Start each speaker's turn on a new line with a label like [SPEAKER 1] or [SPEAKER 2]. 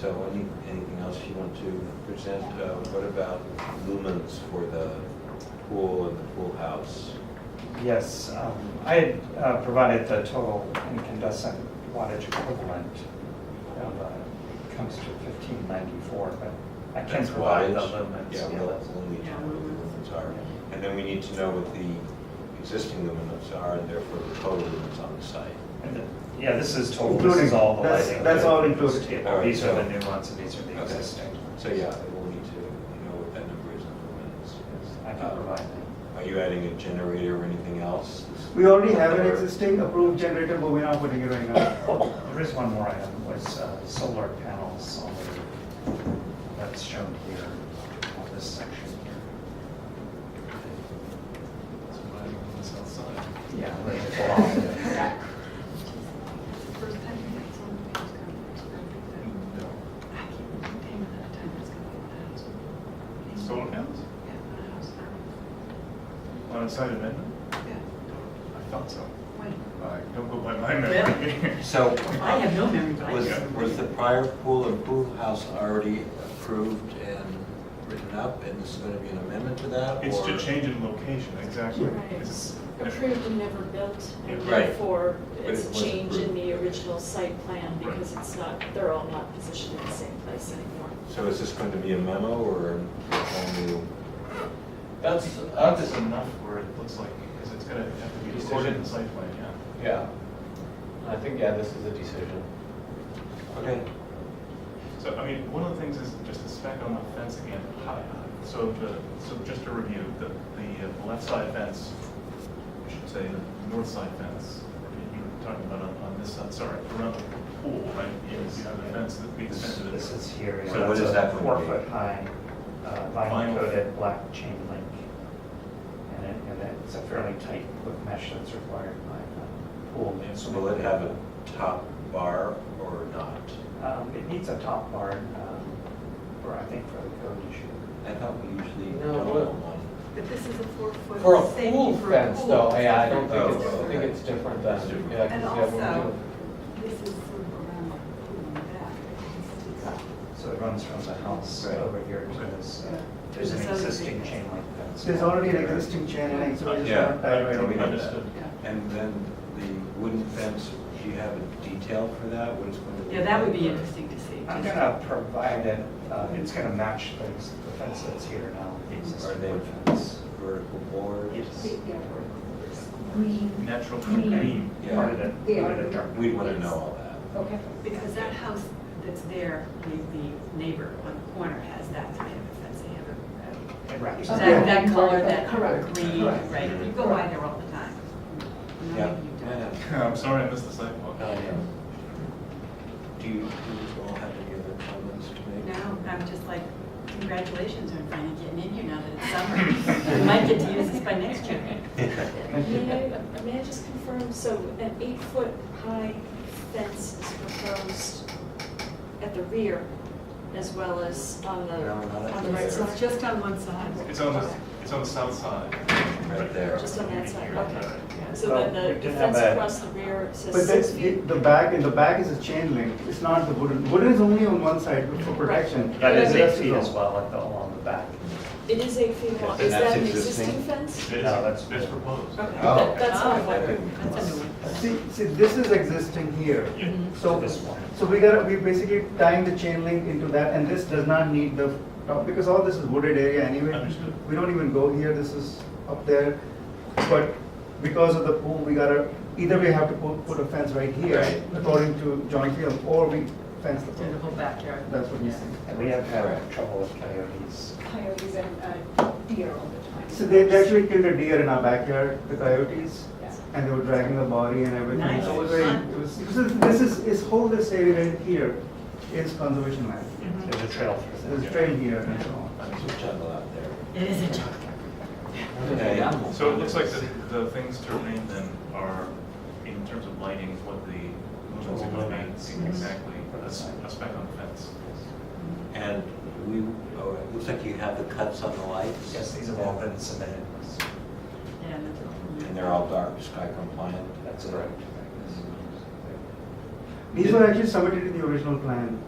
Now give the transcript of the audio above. [SPEAKER 1] So any, anything else you want to present? Uh, What about lumens for the pool and the pool house?
[SPEAKER 2] Yes, um, I had uh, provided the total incandescent wattage equivalent. of, uh, it Comes to fifteen ninety-four, but I can
[SPEAKER 1] That's
[SPEAKER 2] provide the
[SPEAKER 1] wattage?
[SPEAKER 2] lumens.
[SPEAKER 1] Yeah,
[SPEAKER 2] yeah,
[SPEAKER 1] we'll,
[SPEAKER 2] that's-
[SPEAKER 1] we'll need to
[SPEAKER 3] Yeah.
[SPEAKER 1] know what the lumens are. And then we need to know what the existing lumens are and therefore the total lumens on the site.
[SPEAKER 2] and the- Yeah, this is total, this is
[SPEAKER 4] Including.
[SPEAKER 2] all the
[SPEAKER 4] That's-
[SPEAKER 2] lighting.
[SPEAKER 4] that's all
[SPEAKER 2] This
[SPEAKER 4] included.
[SPEAKER 2] table.
[SPEAKER 1] All right,
[SPEAKER 2] These are
[SPEAKER 1] so-
[SPEAKER 2] the new ones and these are the
[SPEAKER 1] Okay.
[SPEAKER 2] existing.
[SPEAKER 1] So yeah, we'll need to know what that number is in lumens.
[SPEAKER 2] I can
[SPEAKER 1] Uh,
[SPEAKER 2] provide that.
[SPEAKER 1] Are you adding a generator or anything else?
[SPEAKER 4] We already have an
[SPEAKER 1] Or-
[SPEAKER 4] existing approved generator, but we're not putting it right now.
[SPEAKER 2] There is one more item, was uh, solar panels on the, that's shown here, on this section here. Yeah. where it's blocked.
[SPEAKER 3] First time you get someone to use computers, I can't contain the time it's gonna be that.
[SPEAKER 5] Solar panels?
[SPEAKER 3] Yeah, on a house now.
[SPEAKER 5] On the side of Midland?
[SPEAKER 3] Yeah,
[SPEAKER 5] I thought so.
[SPEAKER 3] when?
[SPEAKER 5] I don't go by my memory.
[SPEAKER 1] So
[SPEAKER 6] I have no memory, but I
[SPEAKER 1] was,
[SPEAKER 6] can-
[SPEAKER 1] was the prior pool and pool house already approved and written up? And this is going to be an amendment to that?
[SPEAKER 5] It's
[SPEAKER 1] or-
[SPEAKER 5] to change in location, exactly.
[SPEAKER 7] Right,
[SPEAKER 5] It's-
[SPEAKER 7] it's approved and never built, and
[SPEAKER 1] Right.
[SPEAKER 7] therefore
[SPEAKER 1] But
[SPEAKER 7] it's
[SPEAKER 1] it
[SPEAKER 7] a
[SPEAKER 1] was
[SPEAKER 7] change in
[SPEAKER 1] approved.
[SPEAKER 7] the original site plan
[SPEAKER 5] Right.
[SPEAKER 7] because it's not, they're all not positioned in the same place anymore.
[SPEAKER 1] So is this going to be a memo or a whole new?
[SPEAKER 5] That's, that is enough where it looks like, because it's gonna have to be recorded in the site plan, yeah.
[SPEAKER 8] Yeah, I think, yeah, this is a decision.
[SPEAKER 1] Okay,
[SPEAKER 5] So, I mean, one of the things is just to spec on the fence again. How- So the, so just to review, the, the uh, left side fence, I should say, the north side fence, you were talking about on, on this side, sorry, around the pool, right? Yes, you have the fence that we extended. it.
[SPEAKER 2] This is here.
[SPEAKER 5] So what
[SPEAKER 2] it's
[SPEAKER 1] is
[SPEAKER 2] a
[SPEAKER 1] that going to
[SPEAKER 2] Four
[SPEAKER 1] be?
[SPEAKER 2] foot high, uh, vinyl
[SPEAKER 5] Vinyl.
[SPEAKER 2] coated black chain link. And it, and it's a fairly tight hook mesh that's required by the pool.
[SPEAKER 1] so will it have a top bar or not?
[SPEAKER 2] Um, it needs a top bar, um, for, I think for the code issue.
[SPEAKER 1] I thought we usually
[SPEAKER 8] No,
[SPEAKER 1] don't have
[SPEAKER 8] well-
[SPEAKER 1] one.
[SPEAKER 3] But this is a four foot.
[SPEAKER 8] For a
[SPEAKER 3] safety
[SPEAKER 8] pool
[SPEAKER 3] for a
[SPEAKER 8] fence
[SPEAKER 3] pool.
[SPEAKER 8] though, yeah, I don't
[SPEAKER 1] Oh,
[SPEAKER 8] think it's, I think
[SPEAKER 1] okay.
[SPEAKER 8] it's
[SPEAKER 1] It's
[SPEAKER 8] different than,
[SPEAKER 1] different.
[SPEAKER 8] yeah. 'cause
[SPEAKER 3] And
[SPEAKER 8] you have one
[SPEAKER 3] also,
[SPEAKER 8] too.
[SPEAKER 3] this is sort of around the pool in the back.
[SPEAKER 2] So it runs from the house
[SPEAKER 1] Right.
[SPEAKER 2] over here to
[SPEAKER 5] Okay.
[SPEAKER 2] this, uh,
[SPEAKER 3] Yeah.
[SPEAKER 2] there's an
[SPEAKER 3] This is
[SPEAKER 2] existing
[SPEAKER 3] already-
[SPEAKER 2] chain link fence.
[SPEAKER 4] There's already an existing chain link, so we're just
[SPEAKER 1] Yeah.
[SPEAKER 4] not diagramming it.
[SPEAKER 5] Uh, Understood.
[SPEAKER 1] And then the wooden fence, do you have a detail for that? What it's going to be?
[SPEAKER 6] Yeah, that would be interesting to see.
[SPEAKER 2] I'm gonna provide it, uh, it's gonna match the the fence that's here now, the
[SPEAKER 1] Are
[SPEAKER 2] existing
[SPEAKER 1] they
[SPEAKER 2] wood fence.
[SPEAKER 1] vertical boards?
[SPEAKER 2] Yes.
[SPEAKER 5] Natural green.
[SPEAKER 2] Part of it, part of it dark.
[SPEAKER 1] We'd want to know all that.
[SPEAKER 6] Because that house that's there, the, the neighbor on the corner has that type of fence, they have a,
[SPEAKER 2] It wraps
[SPEAKER 6] a-
[SPEAKER 2] up.
[SPEAKER 6] that, that
[SPEAKER 7] Yeah.
[SPEAKER 6] color, that
[SPEAKER 7] Correct.
[SPEAKER 6] green,
[SPEAKER 4] Correct.
[SPEAKER 6] right, you go by there all the time. No,
[SPEAKER 1] Yeah.
[SPEAKER 6] you don't.
[SPEAKER 5] I'm sorry, I missed the sidewalk.
[SPEAKER 1] I know. Um, Do you, do you all have any other comments to make?
[SPEAKER 6] No, I'm just like, congratulations on finally getting in here now that it's summer. We might get to use this by next year.
[SPEAKER 7] May I, uh, may I just confirm, so an eight-foot high fence is proposed at the rear as well as on the,
[SPEAKER 1] No, not at
[SPEAKER 7] on
[SPEAKER 1] the
[SPEAKER 7] the right
[SPEAKER 1] rear.
[SPEAKER 7] side?
[SPEAKER 6] Just on one side.
[SPEAKER 5] It's on the, it's on the south side.
[SPEAKER 1] Right there.
[SPEAKER 7] Just on that side, okay.
[SPEAKER 6] Yeah.
[SPEAKER 7] So
[SPEAKER 2] Well,
[SPEAKER 7] then
[SPEAKER 2] we
[SPEAKER 7] the-
[SPEAKER 2] did
[SPEAKER 7] the
[SPEAKER 2] have
[SPEAKER 7] fence
[SPEAKER 2] a-
[SPEAKER 7] across the rear
[SPEAKER 4] But
[SPEAKER 7] says six feet?
[SPEAKER 4] then, the back, in the back is a chain link, it's not the wooden, wooden is only on one side for protection.
[SPEAKER 2] That is
[SPEAKER 4] The
[SPEAKER 2] eight
[SPEAKER 4] rest
[SPEAKER 2] feet
[SPEAKER 4] all-
[SPEAKER 2] as well, like the, along the back.
[SPEAKER 7] It is eight feet long,
[SPEAKER 1] And
[SPEAKER 7] is
[SPEAKER 1] that's
[SPEAKER 7] that an
[SPEAKER 1] existing?
[SPEAKER 7] existing fence?
[SPEAKER 5] It's-
[SPEAKER 2] No, that's-
[SPEAKER 5] It's proposed.
[SPEAKER 7] Okay,
[SPEAKER 1] Oh.
[SPEAKER 7] that- that's all I
[SPEAKER 6] Oh,
[SPEAKER 7] wondered.
[SPEAKER 6] That's a new one.
[SPEAKER 4] See, see, this is existing here,
[SPEAKER 5] Yeah.
[SPEAKER 6] Mm-hmm.
[SPEAKER 4] so,
[SPEAKER 2] This one.
[SPEAKER 4] so we gotta, we basically tying the chain link into that, and this does not need the, top, because all this is wooded area anyway.
[SPEAKER 5] Understood.
[SPEAKER 4] We don't even go here, this is up there, but because of the pool, we gotta, either we have to put, put a fence right here,
[SPEAKER 1] Right.
[SPEAKER 4] according to John Field, or we fence the
[SPEAKER 6] Through the whole
[SPEAKER 4] pool.
[SPEAKER 6] backyard.
[SPEAKER 4] That's what we see.
[SPEAKER 2] And we have had trouble with coyotes.
[SPEAKER 9] coyotes and uh, deer all the time.
[SPEAKER 4] So they they actually killed a deer in our backyard, the coyotes,
[SPEAKER 9] Yeah.
[SPEAKER 4] and they were dragging the body and everything. So it was
[SPEAKER 6] Nice.
[SPEAKER 4] very, it was, this is- this is, this whole this area right here is conservation land.
[SPEAKER 2] Mm-hmm.
[SPEAKER 6] Mm-hmm.
[SPEAKER 2] There's a trail through
[SPEAKER 4] There's
[SPEAKER 2] there.
[SPEAKER 4] a trail here and so on.
[SPEAKER 1] There's a jungle out there.
[SPEAKER 6] It is a joke.
[SPEAKER 1] Okay.
[SPEAKER 5] So it looks like the, the things to remain then are, in terms of lighting, what the lumens are gonna be, exactly, a s- a spec on the fence.
[SPEAKER 1] And we, oh, it looks like you have the cuts on the lights?
[SPEAKER 2] Yes, these have all been submitted.
[SPEAKER 6] Yeah, that's a-
[SPEAKER 1] And they're all dark sky compliant?
[SPEAKER 2] That's correct.
[SPEAKER 4] These were actually submitted in the original plan.